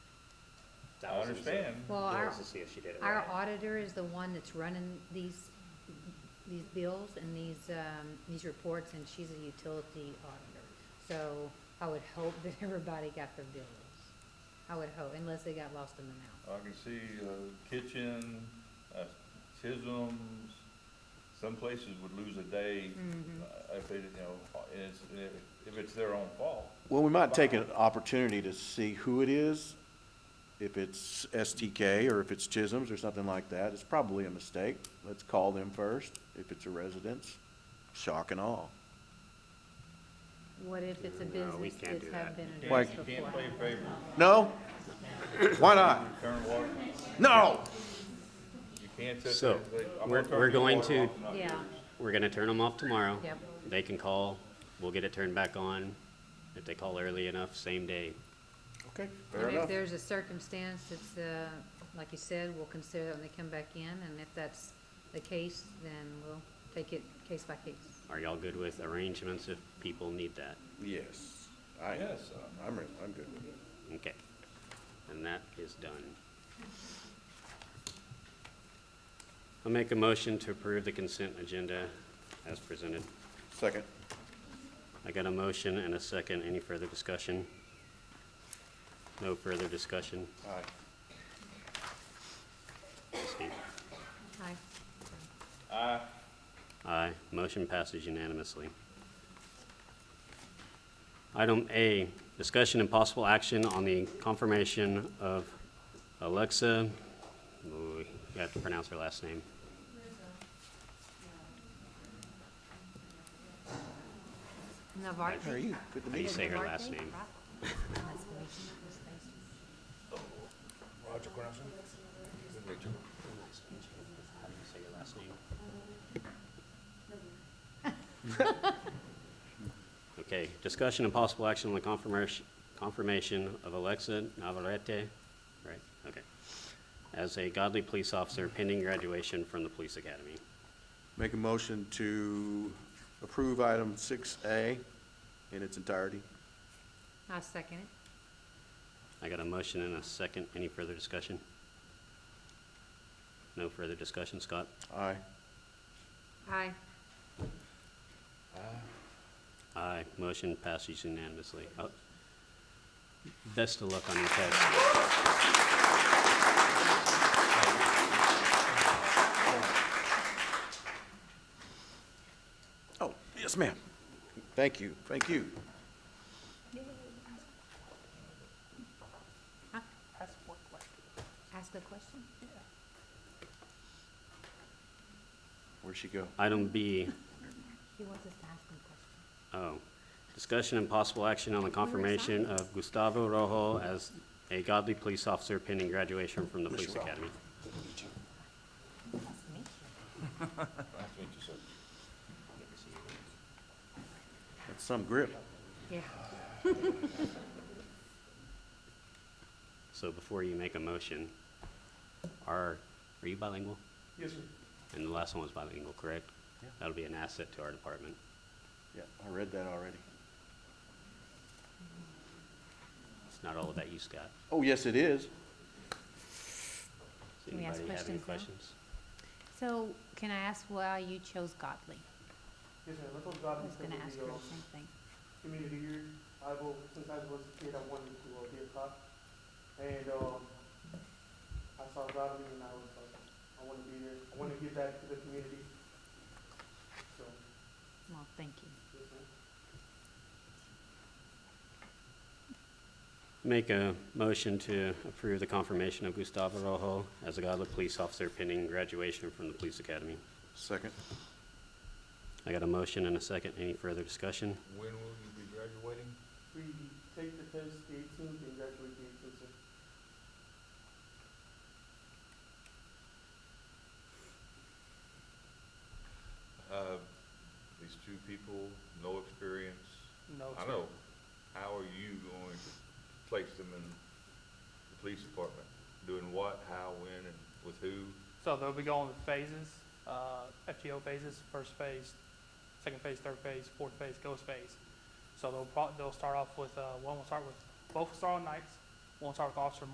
That was easy. understand. Well, It our, was to see if she did it our right. auditor is the one that's running these, these bills and these, um, these reports, and she's a utility auditor. So I would hope that everybody got their bills. I would hope, unless they got lost in the mail. I can see, uh, kitchen, uh, Chisholm's, some places would lose a day, uh, if they, you know, and it's, uh, if it's their own fault. Well, we might take an opportunity to see who it is, if it's STK or if it's Chisholm's or something like that. It's probably a mistake. Let's call them first. If it's a residence, shock and awe. What if it's a No, we business can't that's do have that. been Why- addressed You can't before? play favorites, No? Why not? turn water, No! you can't touch. So, it. I'm gonna we're- turn we're your going water to- off, not Yeah, yours. We're gonna turn them off tomorrow. Yep. They can call, we'll get it turned back on. If they call early enough, same day. Okay, fair and if enough. there's a circumstance that's, uh, like you said, we'll consider it when they come back in, and if that's the case, then we'll take it case by case. Are y'all good with arrangements if people need that? Yes. uh, I, Yes, um, I'm, re- I'm good with it. Okay. And that is done. I'll make a motion to approve the consent agenda as presented. Second. I got a motion and a second. Any further discussion? No further discussion. Aye. Steve? Aye. Aye. Motion passes unanimously. Item A, discussion and possible action on the confirmation of Alexa, ooh, you have to pronounce her last name. Navarre? How are you? Good to How do meet you you. say her last name? How do you say your last name? Okay, discussion and possible action on the confirmation, confirmation of Alexa Navarrete, right, okay, as a godly police officer pending graduation from the police academy. Make a motion to approve item six A in its entirety. I second it. I got a motion and a second. Any further discussion? No further discussion, Scott? Aye. Aye. Aye, motion passes unanimously. Oh, Best of luck on your test. Oh, yes, ma'am. Thank you, thank you. Ask a question? Where'd she go? Item B, He wants us to ask him questions. oh, discussion and possible action on the confirmation of Gustavo Rojo as a godly police officer pending graduation from the police academy. That's what you said. That's some grip. Yeah. So before you make a motion, are, are you bilingual? Yes, sir. And the last one was bilingual, correct? Yeah. That'll be an asset to our department. Yeah, I read that already. It's not all about you, Scott. Oh, yes, it is. Does Can we ask anybody have any questions questions? So can I ask why you chose Godly? Yes, sir, Little I Godly was gonna ask her the Central same thing. uh, community year. I've, al- since I was a kid, I wanted to uh, be a cop. And, um, I saw Godly and I was like, I wanna be there, I wanna give back to the community. So, Well, thank you. yes, ma'am. Make a motion to approve the confirmation of Gustavo Rojo as a Godly police officer pending graduation from the police academy. Second. I got a motion and a second. Any further discussion? When will you be graduating? We take the test the eighteenth and graduate the eighteenth, sir. Uh, these two people, no experience, No, I know. How are you going to place them in the police department? Doing what, how, when, and with who? So they'll be going with phases, uh, FGO phases, first phase, second phase, third phase, fourth phase, ghost phase. So they'll pro- they'll start off with, uh, one will start with, both will start on nights, one will start with Officer